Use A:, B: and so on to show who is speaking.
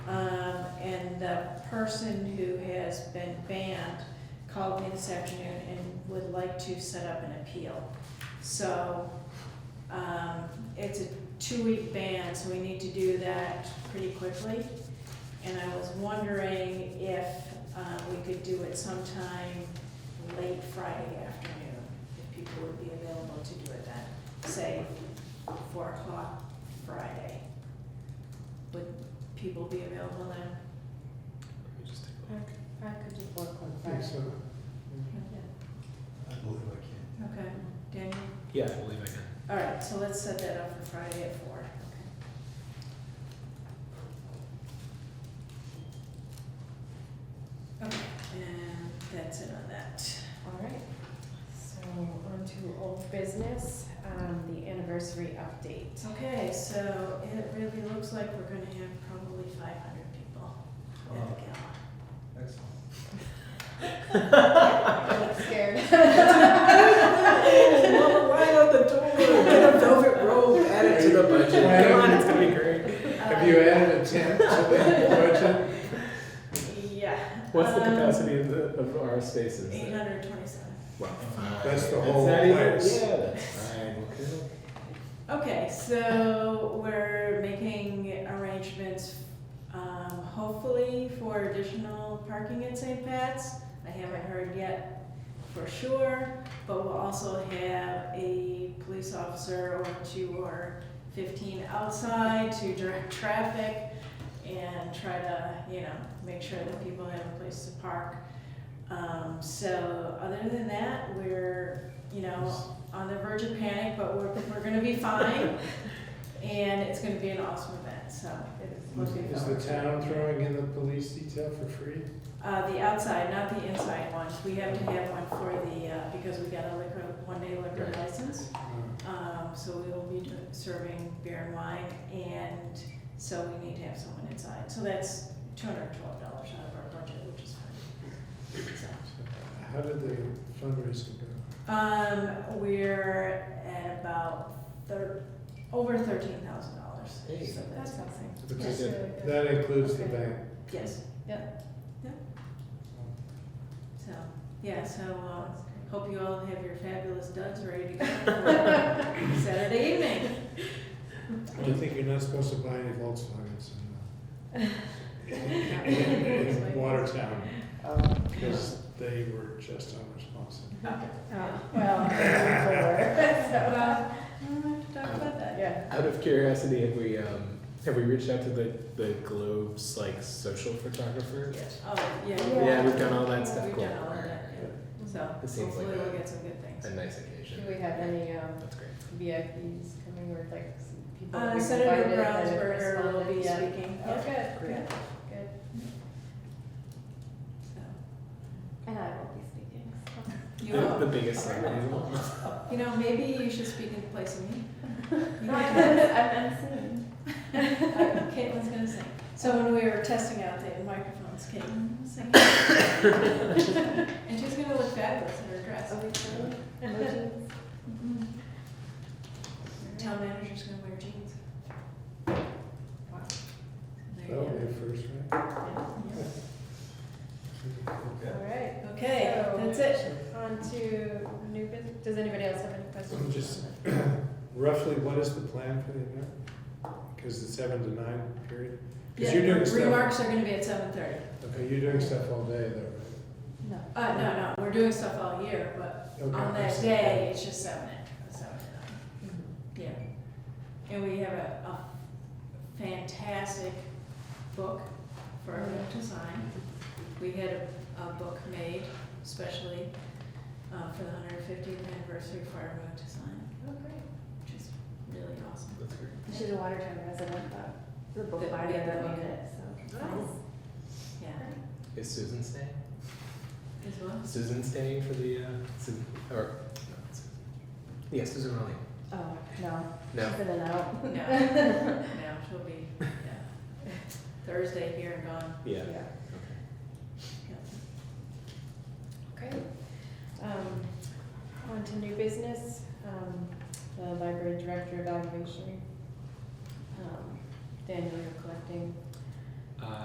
A: Um, the person who has been banned called me this afternoon and would like to set up an appeal. So, um, it's a two-week ban, so we need to do that pretty quickly. And I was wondering if, uh, we could do it sometime late Friday afternoon, if people would be available to do it then, say, four o'clock Friday. Would people be available then?
B: Let me just take a look.
C: I could do four o'clock
D: I think
C: Friday.
D: so.
E: I believe I can.
A: Okay, Daniel?
B: Yeah, I believe I can.
A: All right, so let's set that up for Friday at four. Okay, and that's it on that.
C: All right, so on to old business, um, the anniversary update.
A: Okay, so it really looks like we're gonna have probably five hundred people at the gala.
E: Excellent.
C: I'm scared.
B: Right out the door, velvet rope, add it to the budget. Come on, it's gonna be great.
A: Uh,
D: Have you added a tent to the
A: Yeah. um,
B: What's the capacity of, the, of our spaces?
A: Eight hundred twenty-seven.
B: Wow.
D: That's the
B: It's
D: whole
B: not even-
D: place.
B: Yeah, that's fine, okay.
A: Okay, so we're making arrangements, um, hopefully for additional parking at St. Pat's. I haven't heard yet for sure, but we'll also have a police officer or two or fifteen outside to direct traffic and try to, you know, make sure that people have a place to park. Um, so other than that, we're, you know, on the verge of panic, but we're, we're gonna be fine. And it's gonna be an awesome event, so it's looking
D: Is
A: forward
D: the
A: to it.
D: town throwing in the police detail for free?
A: Uh, the outside, not the inside one. We have to have one for the, uh, because we got a liquor, one-day liquor
B: Right.
A: license.
D: Uh,
A: Um, so we will be doing- serving beer and wine, and so we need to have someone inside. So that's two hundred and twelve dollars out of our budget, which is fine. So,
D: How did the fundraising go?
A: Um, we're at about thir- over thirteen thousand dollars.
B: Hey.
A: So that's
C: That's
A: something.
D: But
C: Yes.
D: that- That includes the
C: Okay.
D: bank.
A: Yes, so, yeah, so, uh, hope you all have your fabulous duds ready to go for Saturday evening.
D: I think you're not supposed to buy any Volkswagens uh, in, uh, in Watertown,
C: Um,
D: because they were just unresponsive.
C: Oh, Well, I'm looking
A: Well, we don't have to talk about
C: forward.
A: that.
C: Yeah.
B: Out of curiosity, have we, um, have we reached out to the, the Globe's, like, social photographer?
A: Oh, yeah.
C: Yeah.
B: Yeah, we've done all that stuff,
A: We've
B: cool.
A: done all of
B: Alright,
A: that,
B: alright.
A: So
B: It seems
A: hopefully
B: like
A: we'll
B: a-
A: get some good things.
B: A nice
C: Do
B: occasion.
C: we have any, um,
B: That's great.
C: VIPs coming or like some people? that
A: Uh,
C: we
A: Senator
C: invited that have
A: Brownsberger will
C: responded
A: be
C: yet?
A: speaking.
C: Oh, good,
A: Great.
C: good, good.
A: So,
C: And I will be speaking, so.
A: You
B: The, the
A: know,
B: biggest thing.
A: you know, maybe you should speak in place of me. You
C: No,
A: know,
C: I've been, I've been seeing.
A: Uh, Caitlin's gonna sing. So when we were testing out the microphones, Caitlin was singing. And she's gonna look fabulous in her dress.
C: Are we sure? Emojis.
A: Mhm. Town manager's gonna wear jeans. Wow. There you
D: That'll
A: go.
D: be a first, right?
C: All right.
A: Okay,
C: So-
A: that's it.
C: On to new business. Does anybody else have any questions?
D: Just- Roughly, what is the plan for the event? Because it's seven to nine period? Because you're
A: Yeah,
D: doing stuff,
A: Remarks are gonna be at seven thirty.
D: okay, you're doing stuff all day though,
C: No.
A: Uh, no, no, we're doing stuff all year, but
D: right?
A: on
D: Okay.
A: that day, it's just seven, at- seven to nine. Yeah. And we have a, a fantastic book for our web design. We had a, a book made especially, uh, for the hundred fiftieth anniversary for our web design,
C: Oh, great.
A: which is really awesome.
B: That's great.
C: She's a Watertown resident, but the
A: The-
C: book buyer
A: yeah, the
C: that
A: book.
C: made it, so.
A: Nice. Yeah,
B: Is Susan staying?
A: as well.
B: Susan staying for the, uh, Susan, or, no, it's Susan. Yeah, Susan Rowley.
C: Oh, no.
B: No.
C: She's in and out.
A: No, no, she'll be, yeah, Thursday here and gone.
B: Yeah.
C: Okay. Um, on to new business, um, the library director evaluation. Um, Daniel, you're collecting